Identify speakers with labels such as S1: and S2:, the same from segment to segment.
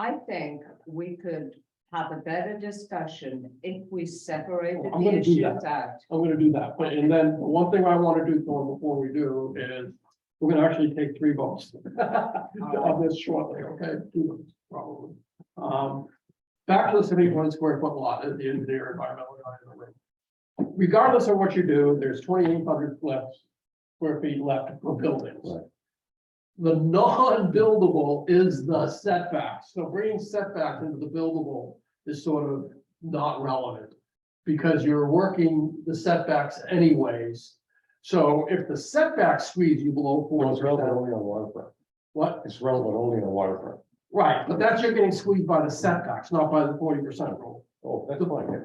S1: I think we could have a better discussion if we separated
S2: I'm
S1: the
S2: gonna do
S1: issues
S2: that.
S1: out.
S2: I'm gonna do that, but and then one thing I wanna do Thor, before we do is, we're gonna actually take three votes. On this shortly, okay, two votes probably. Um, back to the seventy-one square foot lot is the engineer environmental guy in the room. Regardless of what you do, there's twenty-eight hundred left, square feet left for buildings.
S3: Right.
S2: The non-buildable is the setbacks, so bringing setbacks into the buildable is sort of not relevant because you're working the setbacks anyways. So if the setback squeeze you below
S3: Well,
S2: four
S3: it's relevant
S2: percent,
S3: only on waterfront.
S2: what,
S3: It's relevant only on waterfront.
S2: right, but that's you're getting squeezed by the setbacks, not by the forty percent rule.
S3: Oh, that's fine. yeah.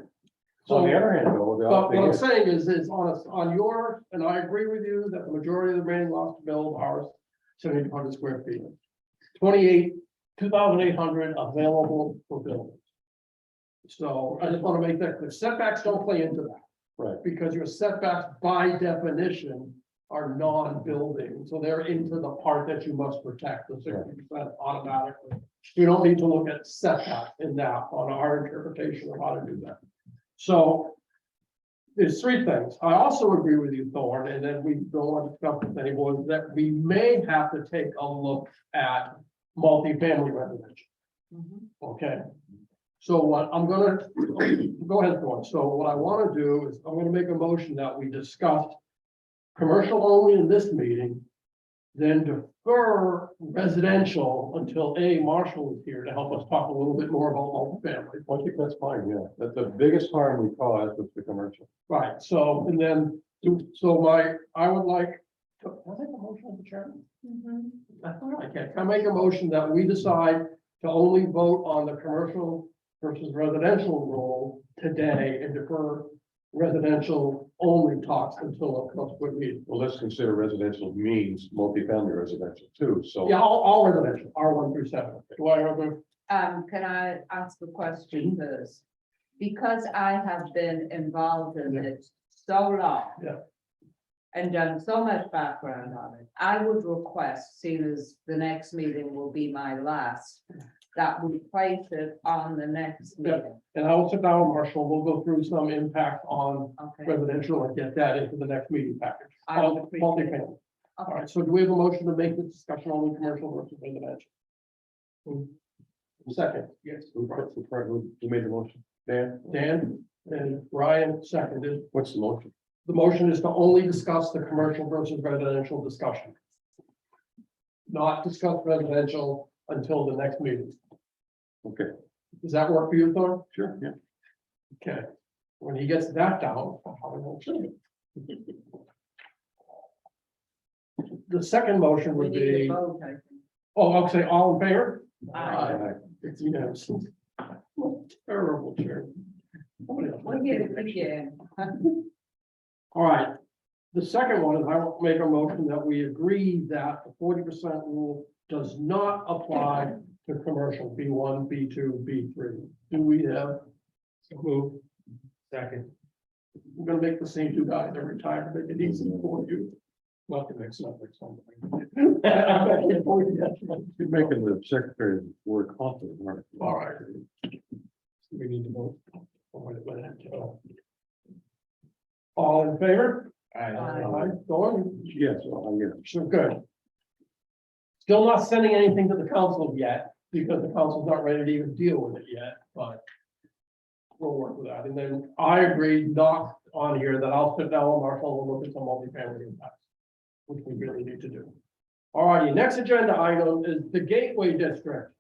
S2: So,
S3: On the other hand, though, the
S2: but what I'm
S3: other thing
S2: saying is, is on us, on your, and I agree with you that the majority of the remaining lots to build are seventy-two hundred square feet. Twenty-eight, two thousand eight hundred available for building. So I just want to make that clear, setbacks don't play into that.
S3: Right.
S2: Because your setbacks by definition are non-building, so they're into the part that you must protect, the sixty percent automatically. You don't need to look at setback in that on our interpretation of how to do that. So. There's three things. I also agree with you, Thorne, and then we don't want to come with anyone, that we may have to take a look at multifamily residential,
S1: Mhm.
S2: okay? So what I'm gonna, go ahead, Thorne. So what I wanna do is I'm gonna make a motion that we discuss commercial only in this meeting, then defer residential until A, Marshall is here to help us talk a little bit more about multifamily.
S3: is, I think that's fine, yeah. That's the biggest harm we caused was the commercial.
S2: Right, so, and then, do- so my, I would like, was it the motion of the chairman?
S1: Mm-hmm.
S2: I thought I can, can I make a motion that we decide to only vote on the commercial versus residential rule today and defer residential only talks until a subsequent meeting?
S3: Well, let's consider residential means multifamily residential too, so.
S2: Yeah, all, all residential, R one through seven. Do I have a,
S1: Um, can I ask a
S2: Mm-hmm.
S1: question first? Because I have been involved in
S2: Yeah.
S1: it so long.
S2: Yeah.
S1: And done so much background on it, I would request, seeing as the next meeting will be my last, that we place it on the next
S2: Yeah.
S1: meeting,
S2: and I will sit down with Marshall, we'll go through some impact on
S1: okay?
S2: residential and get that into the next meeting package.
S1: I would
S2: On
S1: appreciate it.
S2: multifamily. All
S1: Okay.
S2: right, so do we have a motion to make the discussion only commercial versus residential? Second, yes,
S3: Who who- who made the motion? Dan,
S2: Dan and Ryan seconded.
S3: what's the motion?
S2: The motion is to only discuss the commercial versus residential discussion. Not discuss residential until the next meeting.
S3: Okay.
S2: Does that work for you, Thor?
S3: Sure, yeah.
S2: Okay. When he gets that down, I'll probably won't change it. The second motion
S1: We
S2: would
S1: need to
S2: be,
S1: vote, I think.
S2: oh, I'll say all in favor?
S1: Aye.
S2: It's, you know, some terrible chair. Somebody else
S1: We'll
S2: might
S1: get
S2: take
S1: it
S2: a picture.
S1: again.
S2: All right, the second one is I will make a motion that we agree that the forty percent rule does not apply to commercial B one, B two, B three. Do we have? Move. Second. I'm gonna make the same two guys every time, make it easy for you. Not to mix up with something.
S3: You're making the secretary word confident, aren't you?
S2: All right. We need to vote. Or what it went out to. All in favor?
S1: Aye.
S2: Aye, Dawn?
S3: Yes, well, I get it.
S2: So good. Still not sending anything to the council yet, because the council's not ready to even deal with it yet, but. We'll work with that, and then I agree, not on here, that I'll sit down with Marshall and look at some multifamily impacts. Which we really need to do. Alrighty, next agenda item is the Gateway District,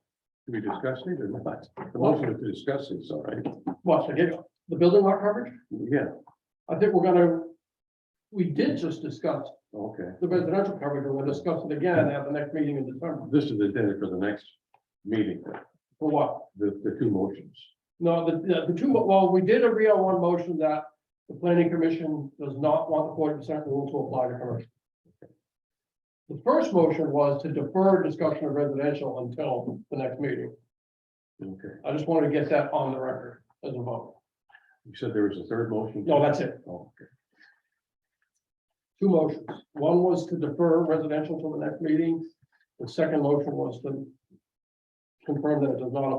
S3: Can we discuss it or not? The motion is to discuss it, all right.
S2: what's the, the building lot coverage?
S3: Yeah,
S2: I think we're gonna, we did just discuss
S3: okay.
S2: the residential coverage, and we'll discuss it again at the next meeting in December,
S3: This is the day for the next meeting,
S2: for what?
S3: the, the two motions.
S2: No, the- the, the two, well, we did agree on one motion that the planning commission does not want the forty percent rule to apply to commercial. The first motion was to defer discussion of residential until the next meeting.
S3: Okay.
S2: I just wanted to get that on the record as a vote.
S3: You said there was a third motion?
S2: No, that's it.
S3: Oh, okay.
S2: Two motions. One was to defer residential till the next meeting. The second motion was to confirm that it does not